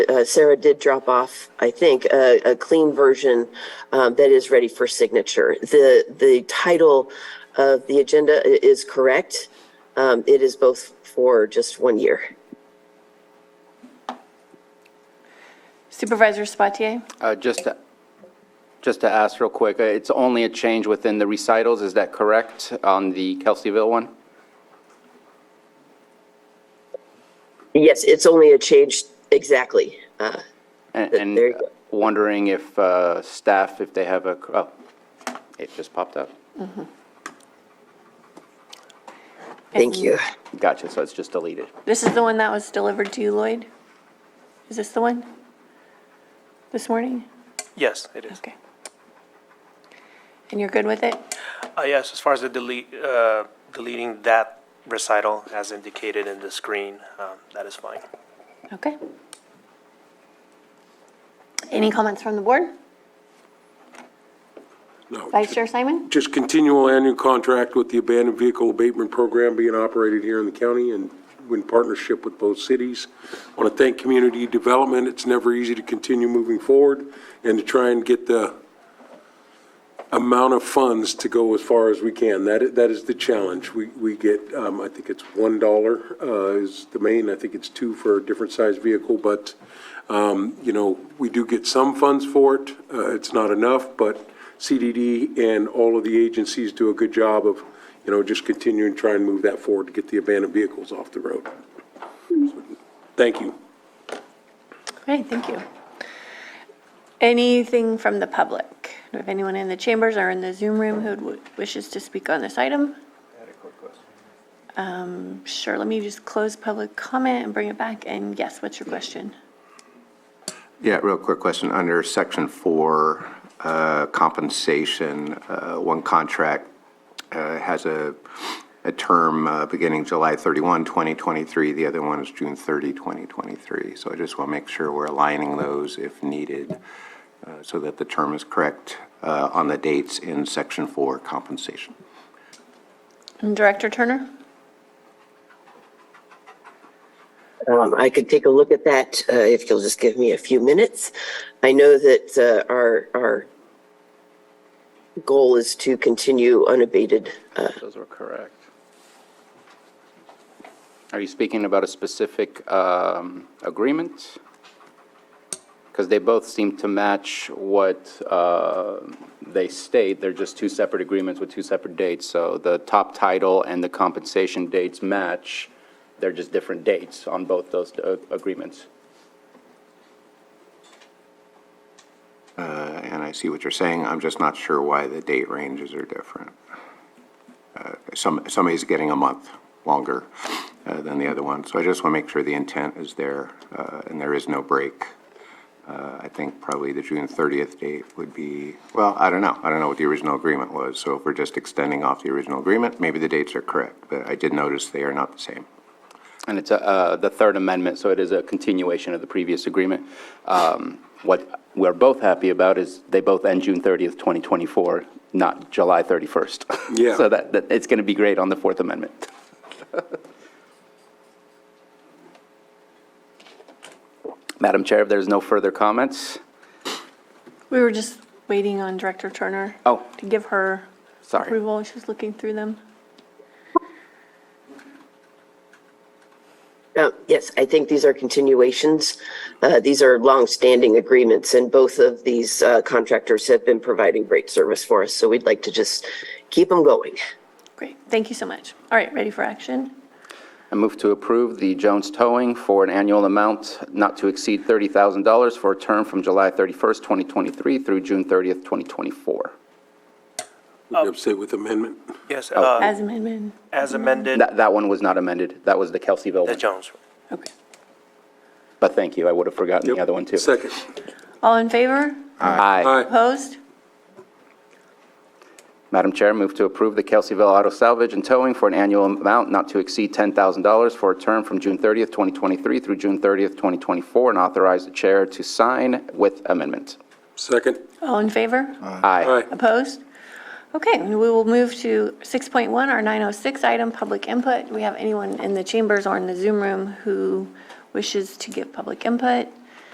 uh, Sarah did drop off, I think, a, a clean version um, that is ready for signature. The, the title of the agenda i- is correct. Um, It is both for just one year. Supervisor Spatier? Uh, Just, to- just to ask real quick, uh, it's only a change within the recitals, is that correct, on the Kelseyville one? Yes, it's only a change, exactly. Uh, And- Th- there you And go. wondering if uh, staff, if they have a, oh, it just popped up. Thank you. Gotcha, so it's just deleted. This is the one that was delivered to you, Lloyd? Is this the one? This morning? Yes, it is. Okay. And you're good with it? Uh, yes, as far as the delete, uh, deleting that recital as indicated in the screen, um, that is fine. Okay. Any comments from the board? No. Vice Chair Simon? Just continual annual contract with the abandoned vehicle abatement program being operated here in the county and in partnership with both cities. Want to thank community development. It's never easy to continue moving forward and to try and get the amount of funds to go as far as we can. That, i- that is the challenge. We, we get, um, I think it's one dollar, uh, is the main. I think it's two for a different size vehicle, but, um, you know, we do get some funds for it. Uh, it's not enough, but CDD and all of the agencies do a good job of, you know, just continuing to try and move that forward to get the abandoned vehicles off the road. Mm-hmm. Thank you. Great, thank you. Anything from the public? Do we have anyone in the chambers or in the Zoom room who w- wishes to speak on this item? Um, Sure, let me just close public comment and bring it back. And yes, what's your question? Yeah, real quick question. Under section four, uh, compensation, uh, one contract uh, has a, a term uh, beginning July 31, 2023. The other one is June 30, 2023. So I just want to make sure we're aligning those if needed uh, so that the term is correct uh, on the dates in section four compensation. And Director Turner? Um, I could take a look at that uh, if you'll just give me a few minutes. I know that uh, our, our goal is to continue unabated. uh, Those were correct. Are you speaking about a specific um, agreement? Because they both seem to match what uh, they state, they're just two separate agreements with two separate dates. So the top title and the compensation dates match, they're just different dates on both those uh, agreements. Uh, And I see what you're saying. I'm just not sure why the date ranges are different. Uh, Some, somebody's getting a month longer uh, than the other one. So I just want to make sure the intent is there uh, and there is no break. Uh, I think probably the June 30th date would be, well, I don't know. I don't know what the original agreement was. So if we're just extending off the original agreement, maybe the dates are correct. But I did notice they are not the same. And it's uh, the Third Amendment, so it is a continuation of the previous agreement. Um, What we're both happy about is they both end June 30th, 2024, not July 31st. Yeah. So that, that- it's going to be great on the Fourth Amendment. Madam Chair, if there's no further comments, We were just waiting on Director Turner. Oh. To give her Sorry. approval. She's looking through them. Uh, Yes, I think these are continuations. Uh, These are longstanding agreements, and both of these uh, contractors have been providing great service for us, so we'd like to just keep them going. Great, thank you so much. All right, ready for action? I move to approve the Jones Towing for an annual amount not to exceed $30,000 for a term from July 31st, 2023 through June 30th, 2024. Oh. Would you upset with amendment? Yes, uh, As amendment. as amended, That, that one was not amended. That was the Kelseyville the one. Jones. Okay. But thank you, I would have forgotten the other one, too. Second. All in favor? Aye. Aye. Opposed? Madam Chair, move to approve the Kelseyville Auto Salvage and Towing for an annual amount not to exceed $10,000 for a term from June 30th, 2023 through June 30th, 2024, and authorize the chair to sign with amendment. Second. All in favor? Aye. Aye. Opposed? Okay, and we will move to 6.1, our 906 item, public input. Do we have anyone in the chambers or in the Zoom room who wishes to give public input?